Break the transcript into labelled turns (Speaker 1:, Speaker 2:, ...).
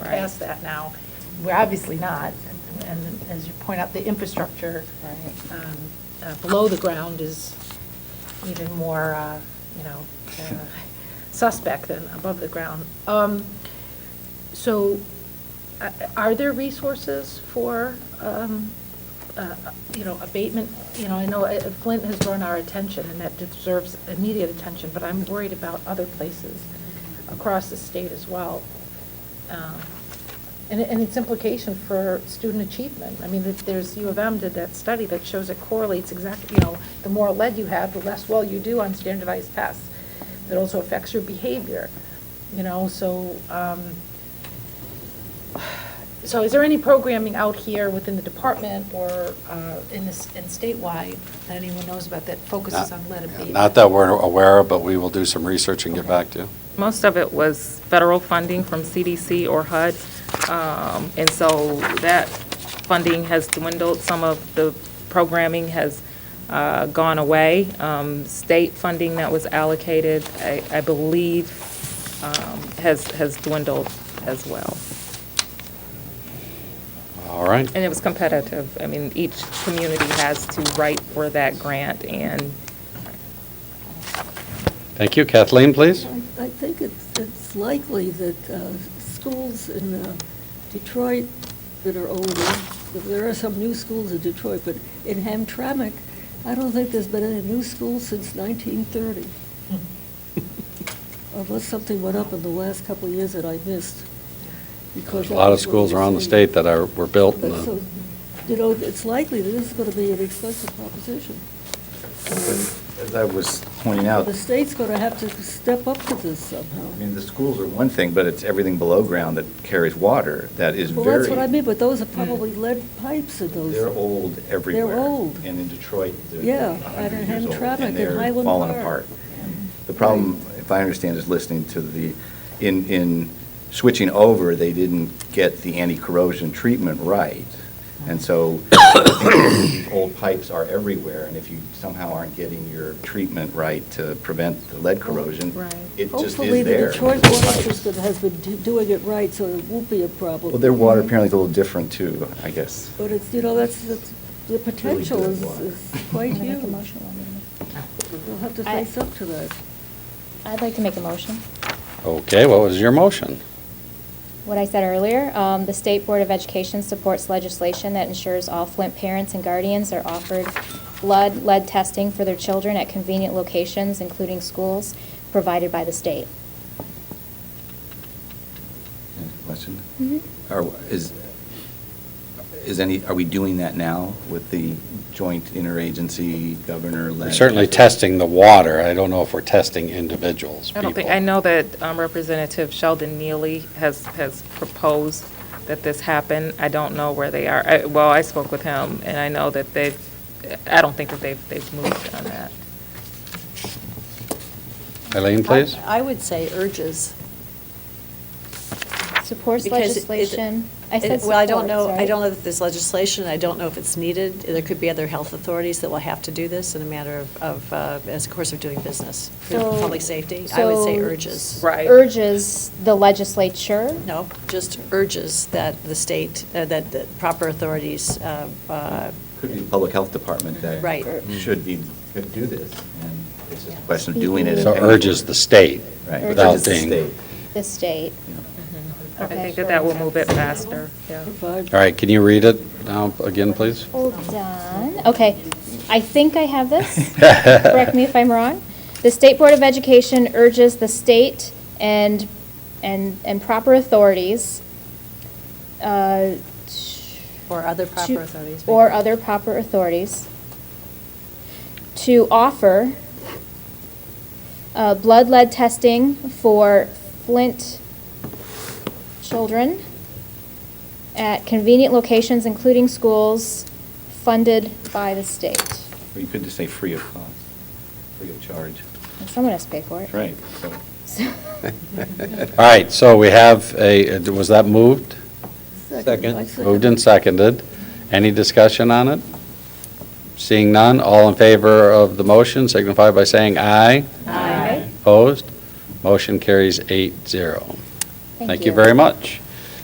Speaker 1: past that now. We're obviously not, and as you point out, the infrastructure
Speaker 2: Right.
Speaker 1: um, uh, below the ground is even more, uh, you know, uh, suspect than above the ground. Um, So uh, are there resources for, um, uh, you know, abatement? You know, I know uh, Flint has drawn our attention, and that deserves immediate attention, but I'm worried about other places across the state as well. Um, And, and its implication for student achievement. I mean, that there's, U of M did that study that shows it correlates exactly, you know, the more lead you have, the less well you do on standardized tests. That also affects your behavior, you know, so, um, so is there any programming out here within the department or, uh, in this, in statewide that anyone knows about that focuses
Speaker 3: Not-
Speaker 1: on lead
Speaker 3: yeah,
Speaker 1: abatement?
Speaker 3: Not that we're aware of, but we will do some research and get back to you.
Speaker 2: Most of it was federal funding from CDC or HUD, um, and so that funding has dwindled. Some of the programming has uh, gone away. Um, State funding that was allocated, I I believe, um, has has dwindled as well.
Speaker 3: All right.
Speaker 2: And it was competitive. I mean, each community has to write for that grant, and
Speaker 3: Thank you. Kathleen, please.
Speaker 4: I I think it's, it's likely that uh, schools in uh, Detroit that are older, there are some new schools in Detroit, but in Hamtramck, I don't think there's been any new school since 1930,
Speaker 1: Hmm.
Speaker 4: unless something went up in the last couple of years that I missed. because
Speaker 3: There's a lot of
Speaker 4: that's what
Speaker 3: schools
Speaker 4: we're
Speaker 3: around the
Speaker 4: seeing.
Speaker 3: state that are, were built. in
Speaker 4: But
Speaker 3: the-
Speaker 4: so, You know, it's likely that this is going to be an expensive proposition.
Speaker 5: As I was pointing out,
Speaker 4: The state's going to have to step up to this somehow.
Speaker 5: I mean, the schools are one thing, but it's everything below ground that carries water that is very... Mm.
Speaker 4: Well, that's what I mean, but those are probably lead pipes in those.
Speaker 5: They're old everywhere.
Speaker 4: old.
Speaker 5: And in Detroit,
Speaker 4: Yeah,
Speaker 5: they're
Speaker 4: I
Speaker 5: 100
Speaker 4: don't
Speaker 5: years
Speaker 4: have
Speaker 5: old,
Speaker 4: traffic in
Speaker 5: and they're
Speaker 4: Highland
Speaker 5: falling
Speaker 4: Park.
Speaker 5: apart. The problem, if I understand, is listening to the, in, in switching over, they didn't get the anti-corrosion treatment right. And so these old pipes are everywhere, and if you somehow aren't getting your treatment right to prevent the lead corrosion,
Speaker 1: Right.
Speaker 5: it just is there.
Speaker 4: Oh, Hopefully, the Detroit
Speaker 5: It's
Speaker 4: Water
Speaker 5: pipes.
Speaker 4: System has been do- doing it right, so it won't be a problem.
Speaker 5: Well, their water apparently is a little different too, I guess.
Speaker 4: But it's, you know, that's, that's- the potential
Speaker 5: good
Speaker 4: is
Speaker 5: water.
Speaker 4: is quite
Speaker 6: Can I
Speaker 4: huge.
Speaker 6: make a motion? on it?
Speaker 4: We'll have to
Speaker 6: I-
Speaker 4: face up to that.
Speaker 6: I'd like to make a motion.
Speaker 3: Okay, what was your motion?
Speaker 6: What I said earlier, um, the State Board of Education supports legislation that ensures all Flint parents and guardians are offered blood lead testing for their children at convenient locations, including schools, provided by the state.
Speaker 5: Question? Are, is, is any, are we doing that now with the joint interagency governor
Speaker 3: We're
Speaker 5: led?
Speaker 3: Certainly testing the water. I don't know if we're testing individuals,
Speaker 2: I don't think,
Speaker 3: people.
Speaker 2: I know that um, Representative Sheldon Neely has, has proposed that this happen. I don't know where they are. I- Well, I spoke with him, and I know that they've, I don't think that they've, they've moved on that.
Speaker 3: Eileen, please.
Speaker 7: I I would say urges.
Speaker 6: Supports
Speaker 7: because it-
Speaker 6: legislation. I
Speaker 7: it-
Speaker 6: said
Speaker 7: Well, I
Speaker 6: supports,
Speaker 7: don't know, I
Speaker 6: right?
Speaker 7: don't know that there's legislation, I don't know if it's needed. There could be other health authorities that will have to do this in a matter of- of, uh, as a course of doing business. for
Speaker 6: So-
Speaker 7: Public safety, I would say
Speaker 6: so
Speaker 7: urges.
Speaker 2: Right.
Speaker 6: Urges the legislature.
Speaker 7: No, just urges that the state, uh, that the proper authorities, uh, uh,
Speaker 5: Could be the public health department that.
Speaker 7: Right.
Speaker 5: Should be, could do this, and it's just a question of doing it. and
Speaker 3: So
Speaker 5: paying for
Speaker 3: urges
Speaker 5: it.
Speaker 3: the state
Speaker 5: Right,
Speaker 3: without
Speaker 5: urges the
Speaker 3: being.
Speaker 5: state.
Speaker 6: The state.
Speaker 2: I
Speaker 6: Okay.
Speaker 2: think that that will move it faster, yeah.
Speaker 4: Provide-
Speaker 3: All right, can you read it now again, please?
Speaker 6: Hold on, okay. I think I have this. Correct me if I'm wrong. The State Board of Education urges the state and, and, and proper authorities uh,
Speaker 7: or other
Speaker 6: to-
Speaker 7: proper authorities.
Speaker 6: Or other proper authorities to offer uh, blood lead testing for Flint children at convenient locations, including schools, funded by the state.
Speaker 5: Or you could just say free of cost, free of charge.
Speaker 6: And Someone has to pay for it.
Speaker 5: That's right. so-
Speaker 6: So-
Speaker 3: All right, so we have a, was that moved?
Speaker 4: I second.
Speaker 3: Moved and seconded. Any discussion on it? Seeing none, all in favor of the motion signify by saying aye. Aye. Opposed? Motion carries eight zero. Thank you very much.